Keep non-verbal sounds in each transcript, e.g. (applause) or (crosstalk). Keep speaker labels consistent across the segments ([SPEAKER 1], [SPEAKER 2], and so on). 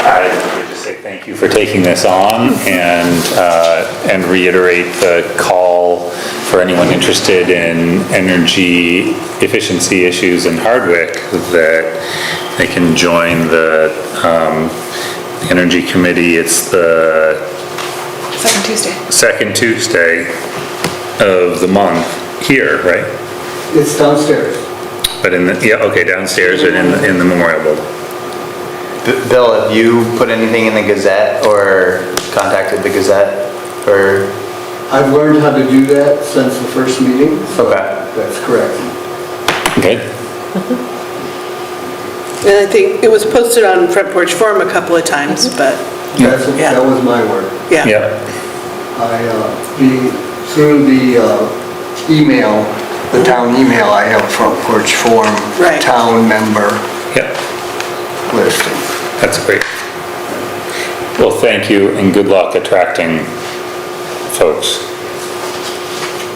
[SPEAKER 1] I would just say thank you for taking this on and, uh, and reiterate the call for anyone interested in energy efficiency issues in Hardwick that they can join the, um, Energy Committee. It's the
[SPEAKER 2] Second Tuesday.
[SPEAKER 1] second Tuesday of the month here, right?
[SPEAKER 3] It's downstairs.
[SPEAKER 1] But in the, yeah, okay, downstairs and in, the- in the memorial building.
[SPEAKER 4] B- Bill, have you put anything in the Gazette or contacted the Gazette or,
[SPEAKER 3] I've learned how to do that since the first meeting, so
[SPEAKER 4] Okay.
[SPEAKER 3] that's correct.
[SPEAKER 1] Good?
[SPEAKER 5] And I think it was posted on Front Porch Forum a couple of times,
[SPEAKER 2] Mm-hmm.
[SPEAKER 5] but,
[SPEAKER 3] That's,
[SPEAKER 5] Yeah.
[SPEAKER 3] that was my work.
[SPEAKER 5] yeah.
[SPEAKER 1] Yep,
[SPEAKER 3] I, uh, the, through the uh, email, the town email, I have front porch form,
[SPEAKER 5] Right.
[SPEAKER 3] town member
[SPEAKER 1] yep.
[SPEAKER 3] listing.
[SPEAKER 1] That's great. Well, thank you and good luck attracting folks.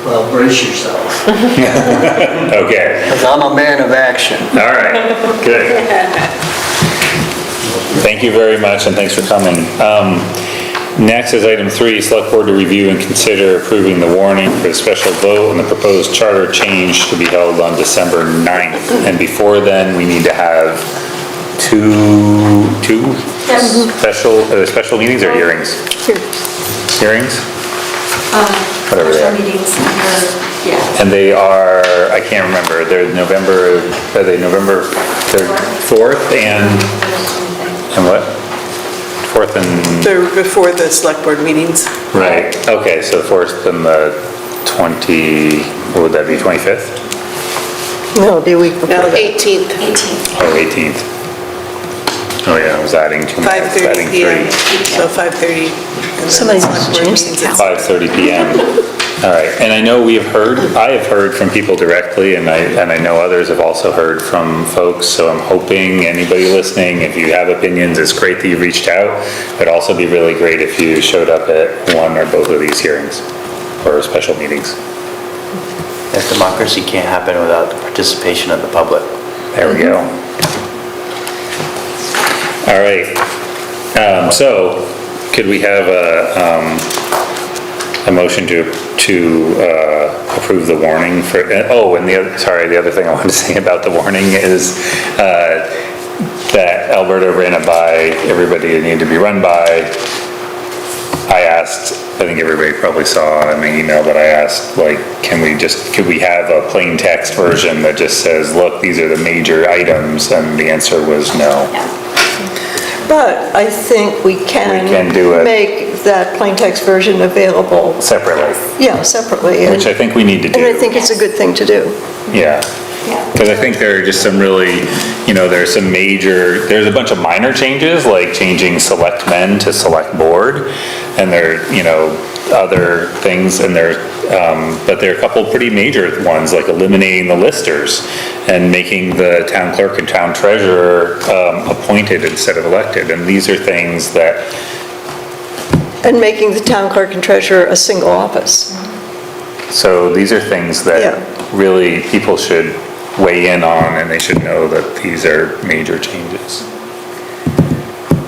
[SPEAKER 3] Well, brace yourself,
[SPEAKER 1] Okay,
[SPEAKER 3] because I'm a man of action.
[SPEAKER 1] all right, good. Thank you very much and thanks for coming. Um, Next is item three, select board to review and consider approving the warning for the special vote on the proposed charter change to be held on December 9th. And before then, we need to have two, two special, uh, special meetings or hearings? Hearings. Whatever they are.
[SPEAKER 6] Special meetings, or- yeah.
[SPEAKER 1] And they are, I can't remember, they're November, are they November, they're 4th and, and what? 4th and,
[SPEAKER 5] They're before the select board meetings.
[SPEAKER 1] right, okay, so 4th and the 20, what would that be, 25th
[SPEAKER 7] No, the week
[SPEAKER 5] Now,
[SPEAKER 7] before.
[SPEAKER 5] 18th,
[SPEAKER 6] 18th.
[SPEAKER 1] or 18th? Oh yeah, I was adding two, I was
[SPEAKER 5] 5:30
[SPEAKER 1] adding
[SPEAKER 5] PM,
[SPEAKER 1] three.
[SPEAKER 5] so 5:30. and then
[SPEAKER 7] Somebody
[SPEAKER 5] select
[SPEAKER 7] must
[SPEAKER 5] board
[SPEAKER 7] change the
[SPEAKER 5] meetings at
[SPEAKER 7] calendar.
[SPEAKER 1] 5:30 PM. All right, and I know we have heard, I have heard from people directly, and I, and I know others have also heard from folks, so I'm hoping anybody listening, if you have opinions, it's great that you reached out. It'd also be really great if you showed up at one or both of these hearings, or special meetings.
[SPEAKER 4] if democracy can't happen without the participation of the public?
[SPEAKER 1] There we go. All right, um, so, could we have a, um, a motion to, to, uh, approve the warning for, uh, oh, and the other, sorry, the other thing I wanted to (laughs) say about the warning is, uh, that Alberta ran it by everybody it needed to be run by, I asked, I think everybody probably saw in the email, but I asked, like, can we just, could we have a plain text version that just says, look, these are the major items, and the answer was no.
[SPEAKER 7] But I think we can.
[SPEAKER 1] We can do it.
[SPEAKER 7] Make that plain text version available,
[SPEAKER 1] Separately,
[SPEAKER 7] yeah, separately. and-
[SPEAKER 1] which I think we need to do.
[SPEAKER 7] And I think it's a good thing to do.
[SPEAKER 1] Yeah.
[SPEAKER 6] Yeah.
[SPEAKER 1] Because I think there are just some really, you know, there's some major, there's a bunch of minor changes, like changing select men to select board, and there, you know, other things, and there, um, but there are a couple pretty major ones, like eliminating the listers and making the town clerk and town treasurer um, appointed instead of elected, and these are things that,
[SPEAKER 7] And making the town clerk and treasurer a single office.
[SPEAKER 1] so these are things
[SPEAKER 7] Yeah.
[SPEAKER 1] that really people should weigh in on, and they should know that these are major changes.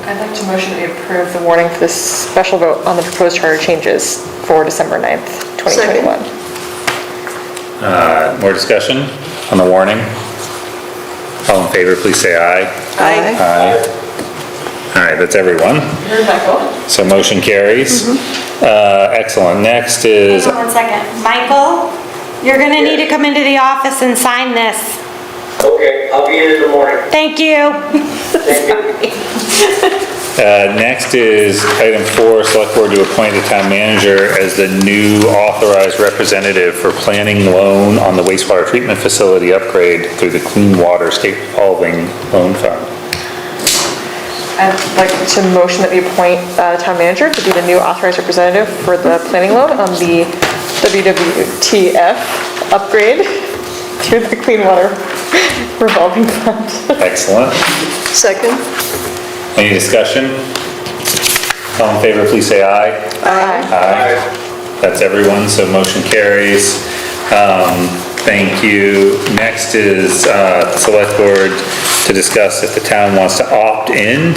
[SPEAKER 8] I'd like to motion we approve the warning for this special vote on the proposed charter changes for December 9th, 2021.
[SPEAKER 1] More discussion on the warning? All in favor, please say aye.
[SPEAKER 7] Aye.
[SPEAKER 1] Aye. All right, that's everyone. So motion carries. Uh, Excellent. Next is, uh,
[SPEAKER 6] Hang on one second. Michael, you're gonna need to come into the office and sign this.
[SPEAKER 9] Okay, I'll be in in the morning.
[SPEAKER 6] Thank you.
[SPEAKER 9] Thank you.
[SPEAKER 1] uh, next is item four, select board to appoint the town manager as the new authorized representative for planning loan on the wastewater treatment facility upgrade through the Clean Water State Revolving Loan Fund.
[SPEAKER 8] I'd like to motion that we appoint uh, town manager to be the new authorized representative for the planning loan on the WWTF upgrade (laughs) through the Clean Water Revolving Fund.
[SPEAKER 1] Excellent.
[SPEAKER 7] Second?
[SPEAKER 1] Any discussion? All in favor, please say aye. Aye. That's everyone, so motion carries. Um, Thank you. Next is uh, Select Board to discuss if the town wants to opt in